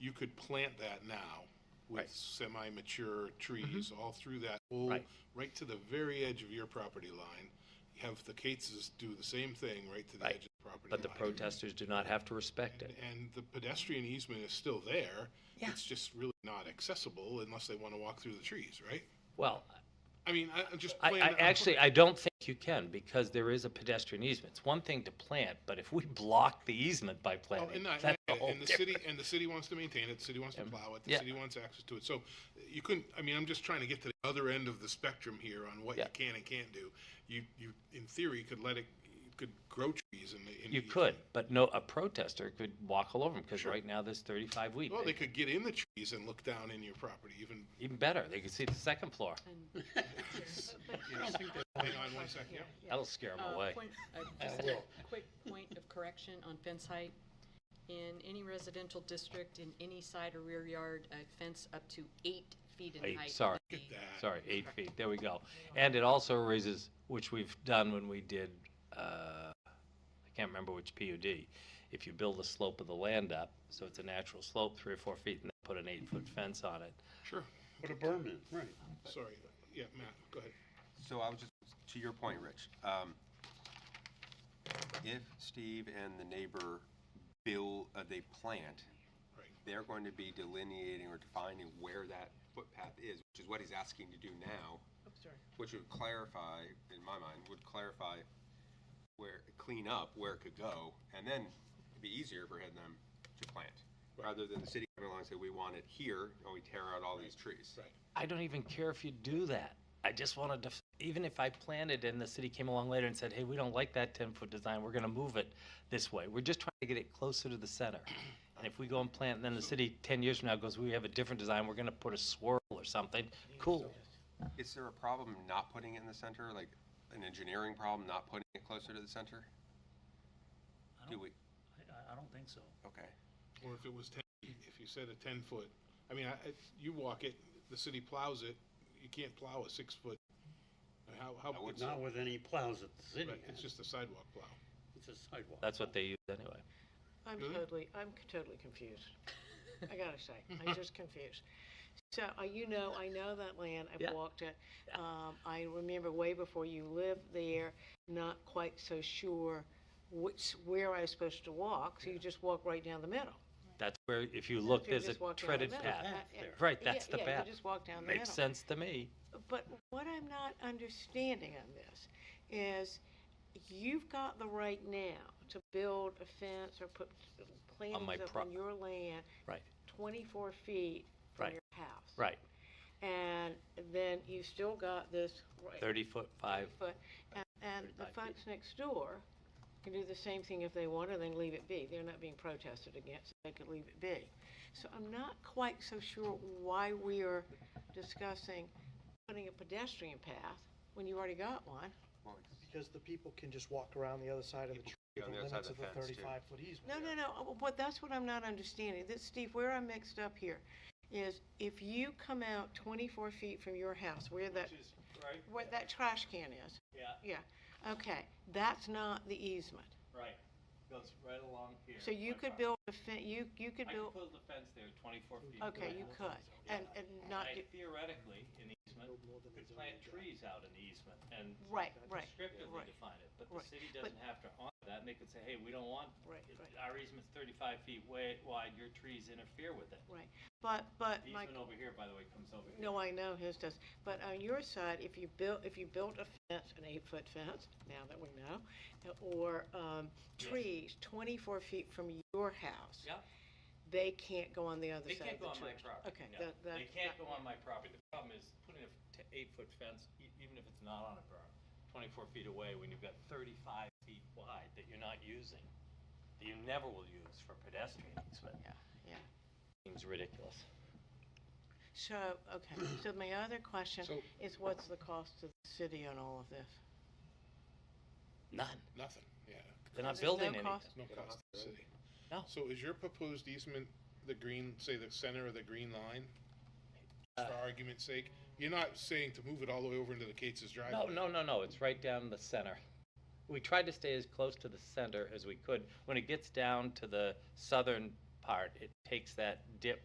you could plant that now with Right. Mm-hmm. semi-mature trees all through that whole, Right. right to the very edge of your property line. Have the Cateses do the same thing right to the Right. edge of the property line. But the protesters do not have to respect it. And the pedestrian easement is still there. Yeah. It's just really not accessible unless they want to walk through the trees, right? Well, I mean, I, I'm just I, playing. I I'm pl- actually, I don't think you can because there is a pedestrian easement. It's one thing to plant, but if we block the easement by Well, planting, and I- that's a and- whole And the city, different- and the city wants to maintain it, the city wants to plow it, the Yeah. city wants access to it. So you couldn't, I mean, I'm just trying to get to the other end of the spectrum here on what you Yeah. can and can't do. You, you, in theory, could let it, you could grow trees in the. in You the- could, but no, a protester could walk all over them because Sure. right now there's 35 weeks. Well, they could get in the trees and look down in your property even, Even better, they could see the second floor. hang on one second, yeah. That'll scare them Uh, away. point- uh, just a Quick point of correction on fence height. In any residential district, in any side or rear yard, a fence up to eight feet in Eight, height. sorry. would Get be- that. Sorry, eight feet, there we go. And it also raises, which we've done when we did, uh, I can't remember which PUD. If you build the slope of the land up, so it's a natural slope, three or four feet, and then put an eight-foot fence on it. Sure, But a berm is, right. sorry. Yeah, Matt, go ahead. So I was just, to your point, Rich, um, if Steve and the neighbor bill, uh, they plant, Right. they're going to be delineating or defining where that footpath is, which is what he's asking to do now. Which would clarify, in my mind, would clarify where, clean up where it could go, and then it'd be easier for them to plant. Rather than the city coming along and say, we want it here, and we tear out all these trees. Right. I don't even care if you do that. I just want to, def- even if I planted and the city came along later and said, hey, we don't like that ten-foot design, we're gonna move it this way. We're just trying to get it closer to the center. And if we go and plant, and then the city ten years from now goes, we have a different design, we're gonna put a swirl or something, cool. Is there a problem not putting it in the center, like an engineering problem not putting it closer to the center? I Do don't, we, I, I don't think so. okay. Or if it was ten, if you said a ten foot, I mean, I, I- you walk it, the city plows it, you can't plow a six foot. How, how, That would it's, not Not with any plows that the city right, it's has. just a sidewalk plow. It's a sidewalk. That's what they use anyway. I'm Hmm? Really? totally, I'm c- totally confused. I gotta say, I'm just confused. So, uh, you know, I know that land, Yeah. I've walked it. Um, I remember way before you lived there, not quite so sure which, where I was supposed to walk, so you just walk right down the middle. That's where, if you look, You're there's a just walking down the treaded middle. path. Uh, uh, Right, yeah, that's the yeah, path. you just walk down the Makes middle. sense to me. But what I'm not understanding on this is you've got the right now to build a fence or put my plantings up pro- on your land Right, 24 feet Right. from your house. right. And then you still got this. right Thirty-foot, five, foot, and- And the 35 feet. folks next door can do the same thing if they want, or they can leave it be. They're not being protested against, they could leave it be. So I'm not quite so sure why we are discussing putting a pedestrian path when you already got one. Well, it's- Because the people can just walk around the other side of the tree, Yeah, on the the other side limits of the of the fence, too. thirty-five foot easement. No, no, no, uh, what, that's what I'm not understanding. This, Steve, where I'm mixed up here is if you come out twenty-four feet from your house, where that, right. where that trash can is. Yeah. Yeah, okay, that's not the easement. right, goes right along here. So you uh, could build a fence, you, you could build, build a fence there, twenty-four feet. okay, you could, and, and not, I do- theoretically, in the easement, could plant trees out in the easement and right, right, descriptively right. define it, but the Right. city But- doesn't have to honor that, and they could say, hey, we don't want, right, it. right, our easement's thirty-five feet wa- wide, your trees interfere with it. right. But, but The my, easement over here, by the way, comes over here. no, I know his does, but on your side, if you built, if you built a fence, an eight-foot fence, now that we know, or, um, Yes. trees twenty-four feet from your house. Yeah. They can't go on the other They can't side of the go on my church. property. Okay, no. that, that. They can't go on my property. The problem is putting a t- eight-foot fence, e- even if it's not on a berm, twenty-four feet away, when you've got thirty-five feet wide that you're not using, that you never will use for pedestrian easement. Yeah, yeah. Seems ridiculous. So, okay, so my other question So- is what's the cost to the city on all of this? None. Nothing, yeah, They're not There's no building anything. cost? no cost to the city. No. So is your proposed easement the green, say the center of the green line? Uh, For argument's sake, you're not saying to move it all the way over into the Cates's driveway? No, no, no, no, it's right down the center. We tried to stay as close to the center as we could. When it gets down to the southern part. It takes that dip